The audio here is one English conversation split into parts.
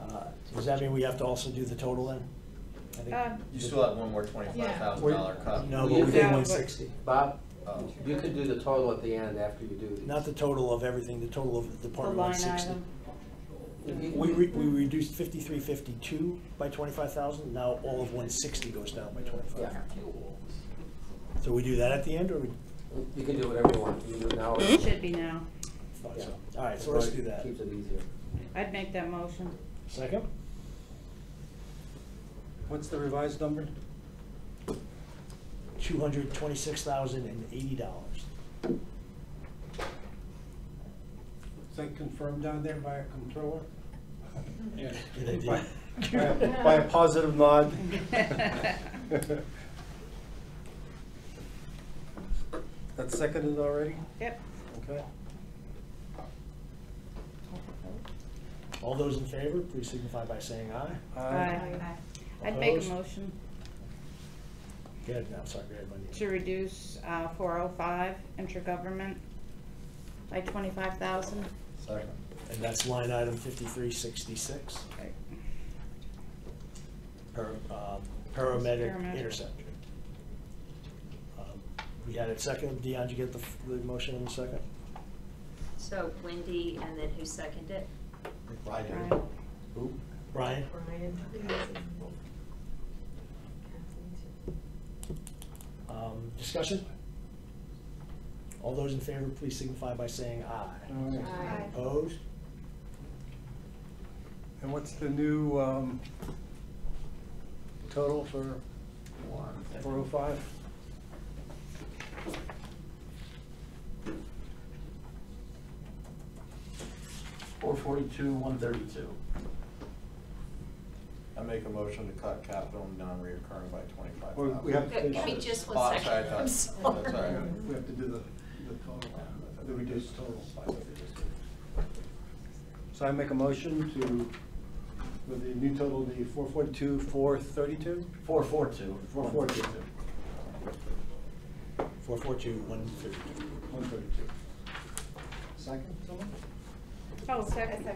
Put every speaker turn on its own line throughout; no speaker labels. Uh, Does that mean we have to also do the total then? I think-
Um,
You still have one more twenty-five thousand dollar cut.
No, but we
Yeah,
did
but-
one sixty.
Bob,
Oh.
you could do the total at the end after you do these.
Not the total of everything, the total of
The
Department one
line
sixty.
item.
We, re- we reduced fifty-three, fifty-two by twenty-five thousand, now all of one sixty goes down by twenty-five.
Yeah.
So we do that at the end, or we?
You can do whatever you want, you can do it now. or-
Should be now.
thought
Yeah.
so. All right, so let's do that.
Keeps it easier.
I'd make that motion.
Second?
What's the revised number?
Two hundred twenty-six thousand and eighty dollars.
Is that confirmed down there by a controller?
By
By a positive nod? That's seconded already?
Yep.
Okay.
All those in favor, please signify by saying aye.
Aye. I'd make a
Opposed?
motion
Go ahead, no, I'm sorry, go ahead, Wendy.
to reduce uh, 405 intergovernment by 25,000.
Second.
And that's line item fifty-three sixty-six, par, uh, paramedic
Paramedic.
interceptor. Um, We had it second, Dion, did you get the, f- the motion in a second?
So Wendy, and then who seconded it?
I do.
Right.
Ooh,
Brian?
Brian.
Um, Discussion? All those in favor, please signify by saying aye.
Aye.
Opposed?
And what's the new um, total for
One.
405?
Four forty-two, one thirty-two.
I make a motion to cut capital and non-reoccurring by twenty-five
Well,
thousand.
we have to
Give
finish
me
this.
just
Oh, sorry,
one
I
second,
thought-
I'm
that's all
sorry.
right.
We have to do the, the total, the reduced total. So I make a motion to, with the new total, the 442, 432?
Four four two.
442,
442, 132.
132. Second, someone?
Oh, second.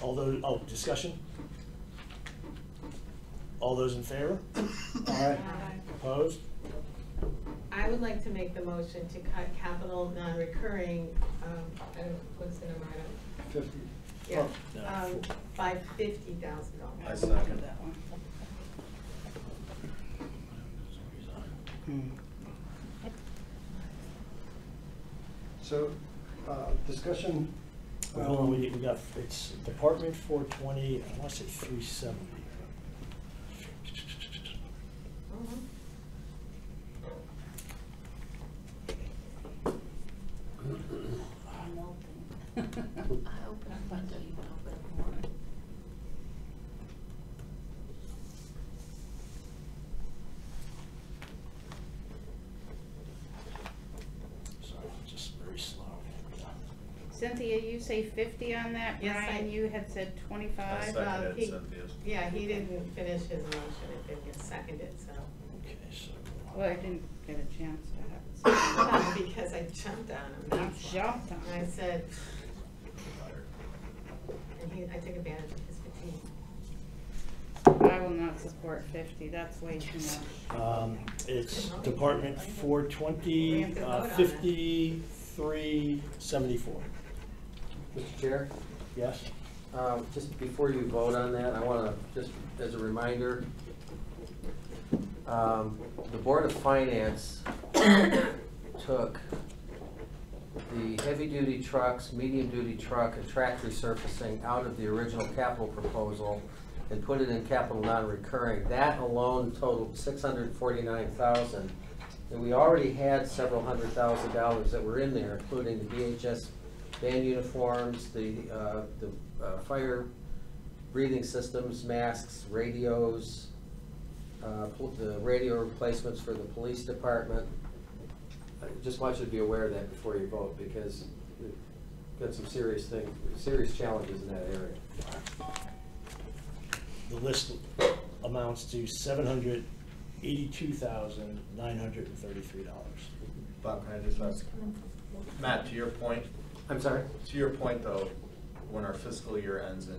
All those, oh, discussion? All those in favor?
All right.
Opposed?
Uh, I would like to make the motion to cut capital non-recurring, um, I don't, what's the number, I don't,
50. Oh,
yeah,
No,
um, by fifty thousand dollars.
Oh. I second.
That one.
So, uh, discussion.
Well,
um,
we, we got, it's Department 420, I want to say 370.
Mhm.
I'm melting.
I open up, I know you can open up more.
Sorry, it's just very slow.
Cynthia, you say 50 on that?
Yes, I-
Brian, you had said
uh,
25.
second.
seconded
he-
Cynthia's.
Yeah, he didn't finish his motion, it didn't get seconded, so,
Okay, so.
Well, I didn't get a chance to have
Well, Um, because I jumped on him,
it. You
that's why.
jumped on
And I
it.
said, and he, I took advantage of his fatigue.
I will not support 50, that's way too much.
Um, It's Department 420, uh, 5374.
Mr. Chair?
Yes?
Um, Just before you vote on that, I want to, just as a reminder, um, the Board of Finance took the heavy-duty trucks, medium-duty truck, and track resurfacing out of the original capital proposal and put it in capital non-recurring. That alone totaled six hundred forty-nine thousand. And we already had several hundred thousand dollars that were in there, including the VHS band uniforms, the, uh, the uh, fire breathing systems, masks, radios, uh, pol- the radio replacements for the police department. I just want you to be aware of that before you vote, because we've got some serious thing, serious challenges in that area.
The list amounts to $782,933.
Bob, can I just ask? Matt, to your point,
I'm sorry?
to your point though, when our fiscal year ends in